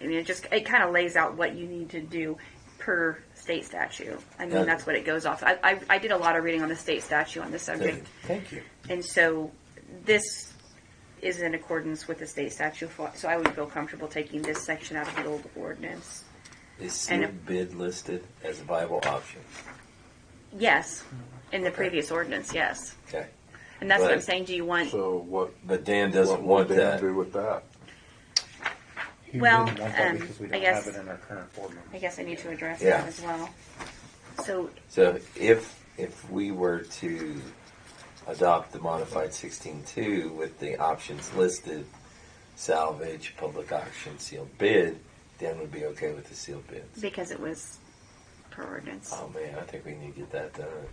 I mean, it just it kind of lays out what you need to do per state statute. I mean, Yeah. that's what it goes off. I, I I did a lot of reading on the state statute on this subject, Thank you. and so this is in accordance with the state statute. for- So I would feel comfortable taking this section out of the old ordinance. Is And- sealed bid listed as a viable option? Yes, in the Okay. previous ordinance, yes, Okay. and that's what I'm Right. saying. Do you want? So what? But Dan doesn't what want would Dan that. do with that? He Well, wouldn't want that um, because we I don't guess- have it in our current ordinance. I guess I need to address Yeah. that as well. So So if, if we were to adopt the modified sixteen two with the options listed, salvage, public auction, sealed bid, Dan would be okay with the sealed bids. because it was per ordinance. Oh man, I think we need to get that done.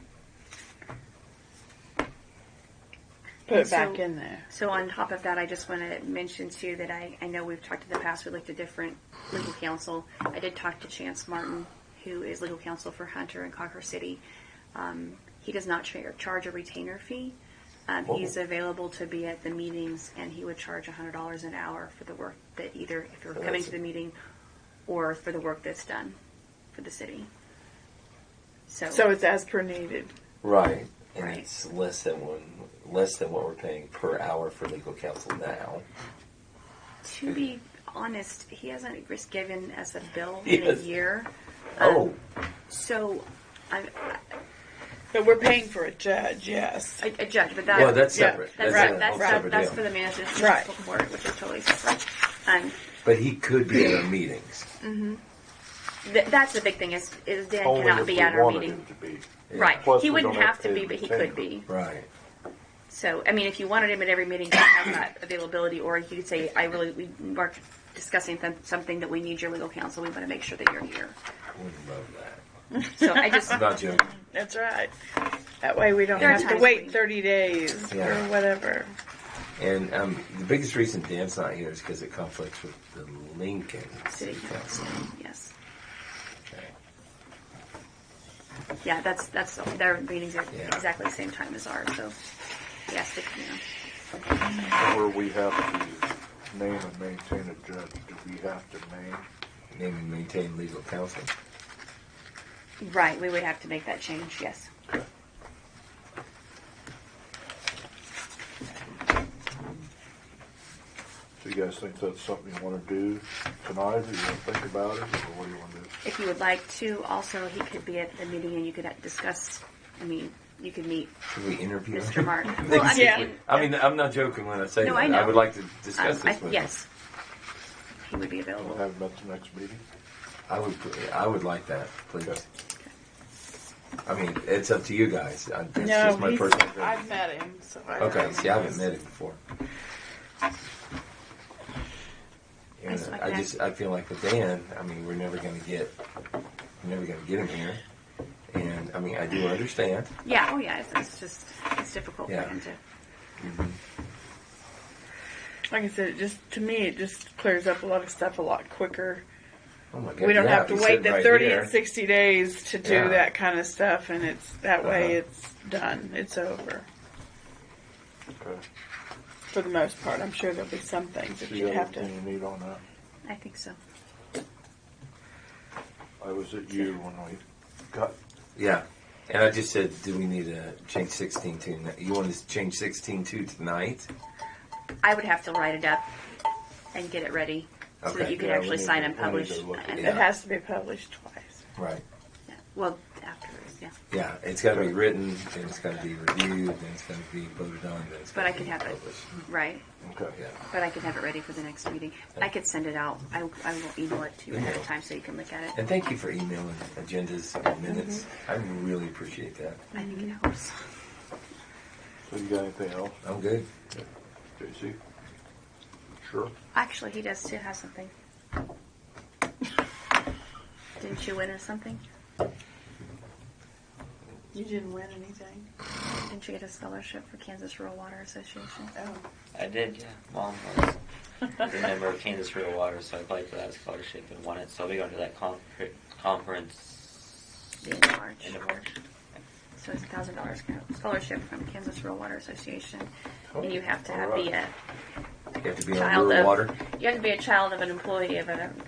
Put it So- back in there. So on top of that, I just want to mention too that I, I know we've talked in the past, we looked at different legal counsel. I did talk to Chance Martin, who is legal counsel for Hunter and Cocker City. Um, he does not tra- charge a retainer fee. Um, he's Oh. available to be at the meetings and he would charge $100 an hour for the work that either if you're Oh, coming that's- to the meeting or for the work that's done for the city. So, So it's as per needed. Right. And Right. it's less than one, less than what we're paying per hour for legal counsel now. to be honest, he hasn't just given us a bill in Yes. a year. Um, Oh, So, I, But we're paying for a judge, yes. I, I judge, but that, well, that's yeah, separate. that's, right, a that's, that's, whole separate that's deal. for the management Right. court, which is totally separate. Um, But he could be at our meetings. th- that's the big thing is, is Dan Only cannot if be we at our wanted meeting. him to be. Right. Plus, he we wouldn't don't have have to to be, pay but he retainer. could be. Right. So, I mean, if you wanted him at every meeting, you have that availability, or you could say, I really, we are discussing th- something that we need your legal counsel. We want to make sure that you're here. Wouldn't love that. So I just, I'm not joking. That's right. That way we don't There are have to times wait we- 30 days Yeah. or whatever. And um, the biggest reason Dan's not here is because it conflicts with the Lincoln city City council, Council. yes. Okay. Yeah, that's, that's, their meetings are Yeah. exactly the same time as ours, so, yes, it- you know. Where we have to name and maintain a judge, do we have to name? Name and maintain legal counsel. Right, we would have to make that change, yes. Do you guys think that's something you want to do tonight, or you want to think about it, or what do you want to do? If you would like to, also, he could be at the meeting and you could discuss, I mean, you could meet um, Should we interview Mr. him? Martin. They Well, I mean, can see- Yeah. and, I mean, I'm not joking when I say No, that. I know. would like to um, discuss I- this with Yes. He would be We'll available. have him at the next meeting. him. I would. I would like that, please. Okay. I mean, it's up to you guys. I, that's No, just my he's- personal. opinion. I've met him. So I don't Okay, know. see, I haven't met him before. And That's I okay. just, I feel like with Dan, I mean, we're never gonna get, we're never gonna get him here. And, I mean, I do understand. Yeah, oh yeah, it's, it's just, it's difficult for Yeah. him to. Mm-hmm. Like I said, it just to me, it just clears up a lot of stuff a lot quicker. Oh my God, We don't yeah, have to he's wait sitting the right 30 here. and 60 days to do Yeah. that kind of stuff, and it's that way Uh-huh. it's done. It's over Okay. for the most part. I'm sure there'll be some things that Do you you'd have have to. anything you need on that? I think so. I was at you when we got, Yeah, and I just said, do we need to change sixteen to, n- you want to change sixteen to tonight? I would have to write it up and get it ready so that Okay. you could Yeah, we actually need sign to- and we need publish. to look at and- Yeah. It has to be published twice. Right. yeah, Well, afterwards, yeah. Yeah, it's gotta be written, then it's gotta be reviewed, then it's gotta be voted on, then it's But I gotta could be have it, published. Oh, right? okay. Yeah, But I could have it ready for the next meeting. I could send it out. I, I will email it to you ahead of time so you can look at it. and thank you for emailing agendas and minutes. Mm-hmm. I really appreciate that. I think it helps. So you got anything else, I'm good. JC? Sure. Actually, he does too have something. Didn't you win or something? You didn't win anything. Didn't you get a scholarship for Kansas Rural Water Association? Oh, I did, yeah. Mom was a member of Kansas Real Water, so I applied for that scholarship and won it. So I'll be going to that con- conference Being in March. end of March. So it's a thousand dollars scholarship from Kansas Rural Water Association, and you have to Oh, have all be a You have to be on child rural of water. you have to be a child of an employee of an